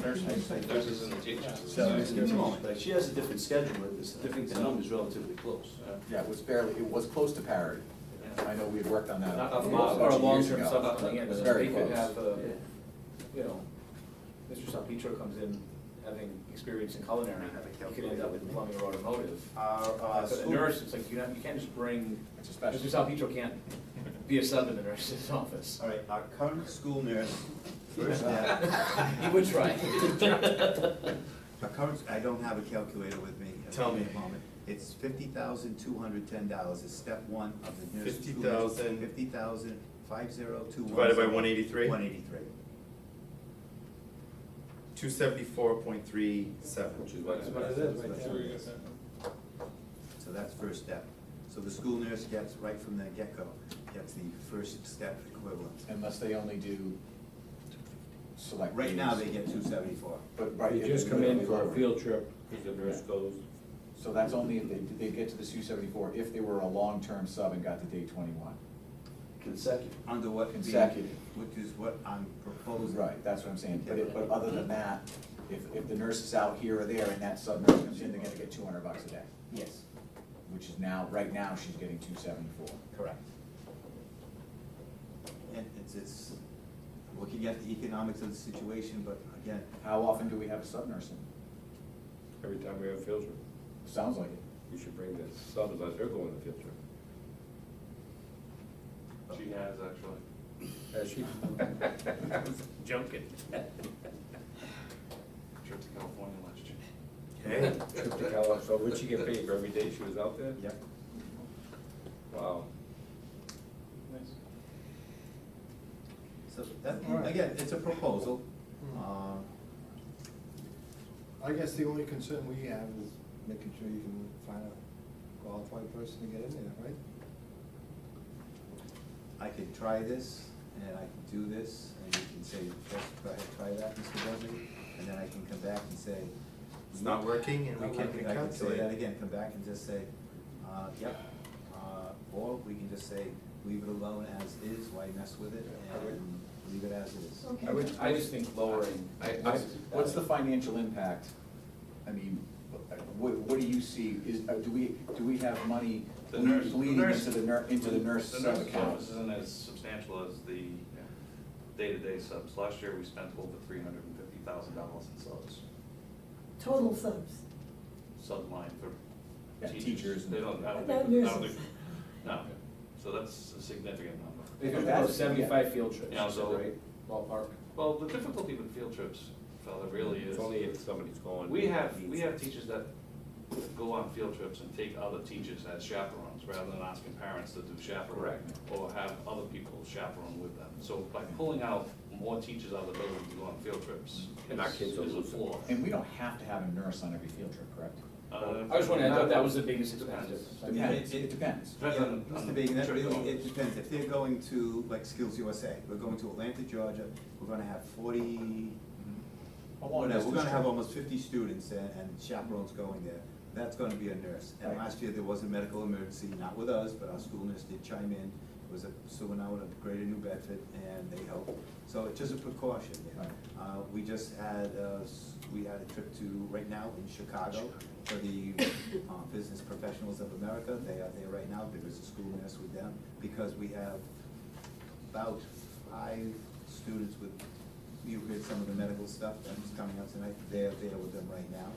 Thursdays, Thursdays and the teachers. So it's gonna be- No, but she has a different schedule, but it's, I think the number's relatively close. Yeah, it was barely, it was close to parity. I know we had worked on that. Not a a few lot, or a years long-term ago. sub coming in, It was so very they could close. have, uh, Yeah. you know, Mr. Salpetro comes in having experience in culinary, he could end up in plumbing or automotive. Our, uh, Uh, so the school- nurse, it's like, you know, you can't just bring, It's a Mr. special. Salpetro can't be a sub in the nurse's office. All right, our current school nurse, first step, He would try. our current, I don't have a calculator with me. Tell me. At the moment, it's fifty thousand two hundred ten dollars, is step one of the nurse. school nurse- 50,000. Fifty thousand, five zero two one. Divided by 183? One eighty-three. Two seventy-four point three seven. Which is what what it is right there. So that's first step. So the school nurse gets, right from the get-go, gets the first step equivalent. Unless they only do select. Right now, they meetings. get two seventy-four. But, right. They if just they come go in for a over. field trip, because the nurse goes. So that's only, if they, they get to the two seventy-four if they were a long-term sub and got to day twenty-one. Consecutive. Under what being- Consecutive. Which is what I'm proposing. Right, that's what I'm saying, but it, but other than that, if, if the nurse is out here or there and that sub nurse comes in, they're gonna get two hundred bucks a day, Yes, which is now, right now, she's getting two seventy-four. correct. And it's, it's, looking at the economics of the situation, but again, How often do we have a sub nurse in? Every time we have a field trip, Sounds like it. we should bring the subs as they're going to field trip. She has actually. As she. I was Joking. Trip to California last year. Okay, Trip to Cali- So would she get paid for every day she was out there? yep, Wow. so that, again, it's a proposal. Hmm. Um, I guess the only concern we have is making sure you can find a qualified person to get in there, right? I could try this, and I could do this, and you can say, yes, go ahead, try that, Mr. Dudley, and then I can come back and say. It's not working and we I can could- I could say that calculate. again, come back and just say, uh, yep, uh, or we can just say, leave it alone as is, why mess with it, and leave it as is. I would, I just think lowering. I, I, what's the financial impact? I mean, what, what do you see, is, uh, do we, do we have money The nurse- the bleeding nurse- into the nur, into the nurse The sub nurse's account? office isn't as substantial as the day-to-day subs. Last year, we spent over three hundred and fifty thousand dollars in subs. Total subs. Sub line for Yeah, teachers teachers. and- They don't, I don't Not think- I don't nurses. think- No, so that's a significant number. They could go seventy-five field trips, Yeah, so- right, ballpark. Well, the difficulty with field trips, fella, really is. It's only if somebody's going. We have, we have teachers that go on field trips and take other teachers as chaperones, rather than asking parents to do chaperone. Correct. Or have other people chaperone with them. So by pulling out more teachers out of the building to go on field trips And our is kids will is a lose it. flaw. And we don't have to have a nurse on every field trip, correct? Uh, I just wanted, I thought that was the biggest Depends. expense. Yeah, Depends, it- it- it depends. Depends Yeah, on- on Mr. Bagan, that trip really, goals. it depends, if they're going to, like Skills USA, we're going to Atlanta, Georgia, we're gonna have forty, Oh, A long whatever, we're distance gonna have trip. almost fifty students and, and chaperones going there, that's gonna be a nurse. And Right. last year, there was a medical emergency, not with us, but our school nurse did chime in, it was a, someone out of Greater New Bedford, and they helped. So it's just a precaution, you know. Right. Uh, we just had, uh, s- we had a trip to, right now, in Chicago, for the, uh, Business Professionals of America, they are there right now, there is a school nurse with them, because we have about five students with, you heard some of the medical stuff that's coming up tonight, they're there with them right now.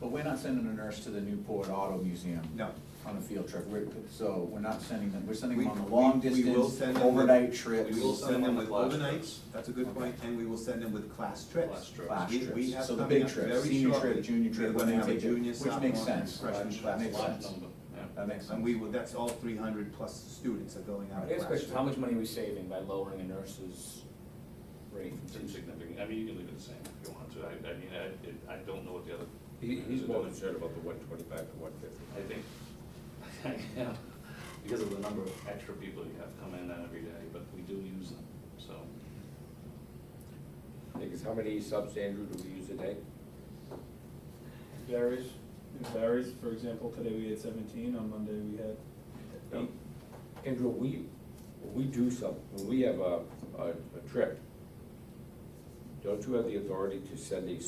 But we're not sending a nurse to the Newport Auto Museum. No. On a field trip, we're, so we're not sending them, we're sending We- them on the we- long we will distance, send them with- overnight trips. We will send them with Class overnights, trips. that's a good point, and we will send them with class Class trips. trips. Class We- we trips. have So the coming big up trips, very senior shortly, trip, junior we're trip, gonna when they have a take it, junior, which makes sophomore, and sense. freshman That class. makes Large sense. number, yeah. That makes sense. And we will, that's all three hundred plus students are going I out. guess class question, trip. how much money are we saving by lowering a nurse's rate It's from two sixty? insignificant. I mean, you can leave it the same if you want to. I, I mean, I, it- I don't know what the other. He, he's more I concerned about the one twenty-five to one fifty. think, yeah, because of the number of extra people you have come in every day, but we do use them, so. Because how many subs, Andrew, do we use a day? Varies, it varies, for example, today we had seventeen, on Monday we had eight. Andrew, we, when we do some, when we have a, a, a trip, don't you have the authority to send a